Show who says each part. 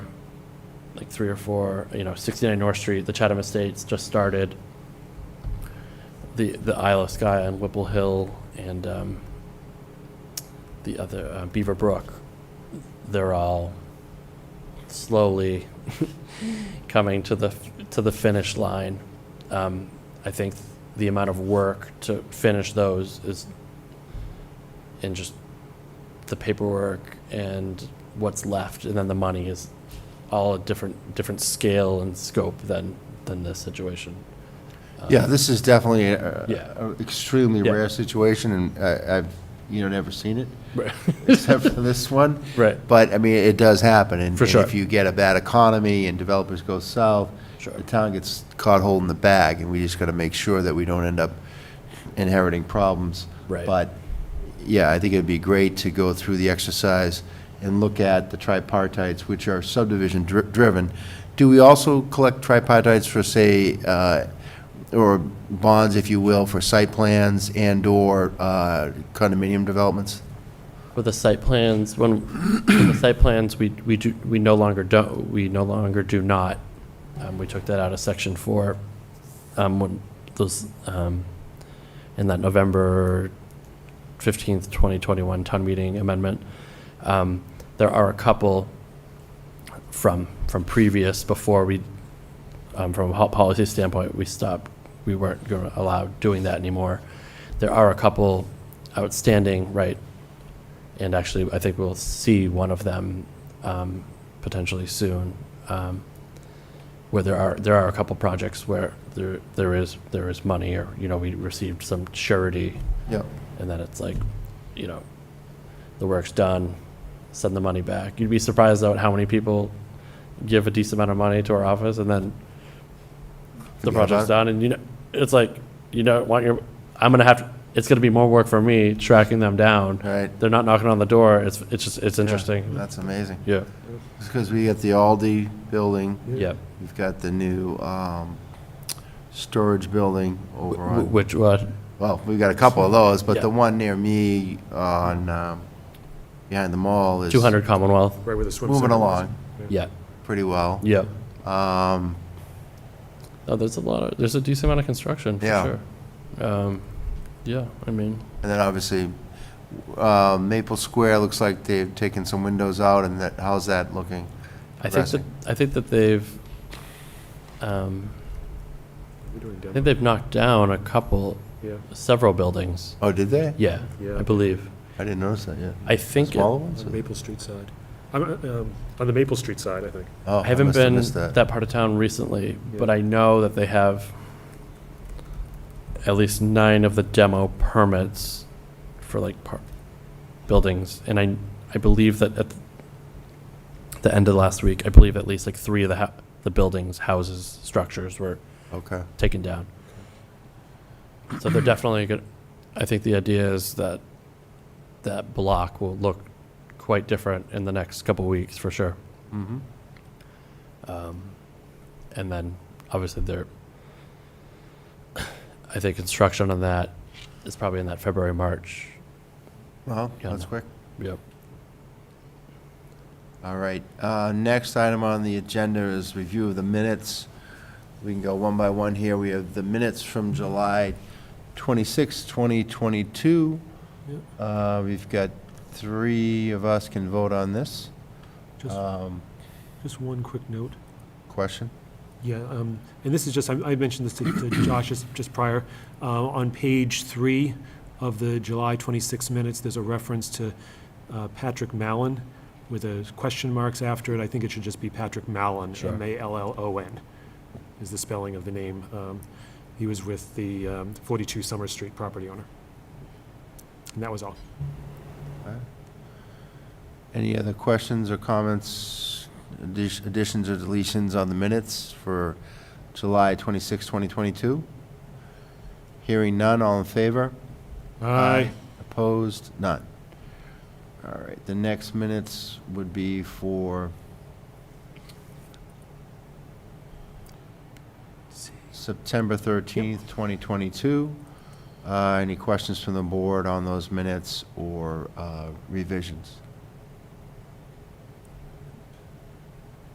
Speaker 1: like three or four, you know, 69 North Street, the Chatham Estates just started, the, the Isle of Skye on Whipple Hill and um, the other, uh, Beaver Brook. They're all slowly coming to the, f- to the finish line. Um, I think the amount of work to finish those is, and just the paperwork and what's left, and then the money is all a different, different scale and scope than, than this situation.
Speaker 2: Yeah, this is definitely a-
Speaker 1: Yeah.
Speaker 2: a- a extremely
Speaker 1: Yeah.
Speaker 2: rare situation, and I- I've, you know, never seen it, except for this one.
Speaker 1: Right.
Speaker 2: But, I mean, it does happen. and-
Speaker 1: For sure.
Speaker 2: And if you get a bad economy and developers go south,
Speaker 1: Sure.
Speaker 2: the town gets caught holding the bag, and we just got to make sure that we don't end up inheriting problems.
Speaker 1: Right.
Speaker 2: But, yeah, I think it'd be great to go through the exercise and look at the tripartites, which are subdivision dri- driven. Do we also collect tripartites for, say, uh, or bonds, if you will, for site plans and/or uh, condominium developments?
Speaker 1: For the site plans, when, for the site plans, we, we do, we no longer do, we no longer do not. Um, we took that out of section four, um, when those, um, in that November fifteenth, twenty twenty-one town meeting amendment. Um, there are a couple from, from previous, before we, um, from a hot policy standpoint, we stopped, we weren't gonna allow doing that anymore. There are a couple outstanding, right, and actually, I think we'll see one of them um, potentially soon, um, where there are, there are a couple projects where there, there is, there is money, or, you know, we received some surety,
Speaker 2: Yeah.
Speaker 1: and then it's like, you know, the work's done, send the money back. You'd be surprised at how many people give a decent amount of money to our office, and then the
Speaker 2: Forget
Speaker 1: project's done, and you know, it's like, you don't want your, I'm gonna have, to. it's gonna be more work for me tracking them down
Speaker 2: Right.
Speaker 1: they're not knocking on the door. It's it's just it's interesting.
Speaker 2: That's amazing.
Speaker 1: Yeah,
Speaker 2: It's because we got the Aldi building,
Speaker 1: yeah.
Speaker 2: we've got the new um, storage building over
Speaker 1: Wh-
Speaker 2: on,
Speaker 1: Which what?
Speaker 2: well, we've got a couple of those, but the
Speaker 1: Yeah.
Speaker 2: one near me on, um, behind the mall is
Speaker 1: Two hundred Commonwealth.
Speaker 3: Right where the swim
Speaker 2: moving
Speaker 3: center was.
Speaker 2: along
Speaker 1: Yeah,
Speaker 2: pretty well.
Speaker 1: yeah.
Speaker 2: Um,
Speaker 1: Oh, there's a lot of there's a decent amount of construction for
Speaker 2: Yeah.
Speaker 1: sure. Um, yeah, I mean,
Speaker 2: And then obviously, uh, Maple Square looks like they've taken some windows out, and that, how's that looking?
Speaker 1: I think that
Speaker 2: Progressing.
Speaker 1: I think that they've um,
Speaker 3: We're doing
Speaker 1: I
Speaker 3: demo.
Speaker 1: think they've knocked down a couple,
Speaker 3: Yeah,
Speaker 1: several buildings.
Speaker 2: Oh, did they?
Speaker 1: Yeah,
Speaker 3: Yeah.
Speaker 1: I believe.
Speaker 2: I didn't notice that yet.
Speaker 1: I think. It,
Speaker 2: Smaller
Speaker 3: on
Speaker 2: ones?
Speaker 3: the Maple Street side. I'm, uh, um, On the Maple Street side, I think.
Speaker 2: Oh,
Speaker 1: I haven't
Speaker 2: must have
Speaker 1: been
Speaker 2: missed
Speaker 1: that. part of town recently, but
Speaker 3: Yeah.
Speaker 1: I know that they have at least nine of the demo permits for like par- buildings, and I I believe that at the end of last week, I believe at least like three of the hou- the buildings, houses, structures were
Speaker 2: Okay.
Speaker 1: taken down. So they're definitely good. I think the idea is that that block will look quite different in the next couple weeks for sure.
Speaker 2: Mm-hmm.
Speaker 1: Um, And then, obviously, there, I think construction on that is probably in that February, March.
Speaker 2: Well,
Speaker 1: Yeah,
Speaker 2: that's
Speaker 1: no.
Speaker 2: quick.
Speaker 1: Yep.
Speaker 2: All right. Uh, Next item on the agenda is review of the minutes. We can go one by one here. We have the minutes from July 26, 2022. Uh, We've got three of us can vote on this.
Speaker 3: Just,
Speaker 2: Um,
Speaker 3: just one quick note.
Speaker 2: Question?
Speaker 3: Yeah, um, and this is just, I I mentioned this to to Josh just- just prior. Uh, On page three of the July 26 minutes, there's a reference to uh, Patrick Mallon with a question marks after it. I think it should just be Patrick Mallon,
Speaker 1: Sure.
Speaker 3: M-A-L-L-O-N, is the spelling of the name. Um, He was with the um, 42 Summer Street property owner. And that was all.
Speaker 2: Any other questions or comments, addi- additions or deletions on the minutes for July 26, 2022? Hearing none, all in favor? Opposed? None. All right, the next minutes would be for September 13th, 2022. Uh, Any questions from the board on those minutes or uh, revisions?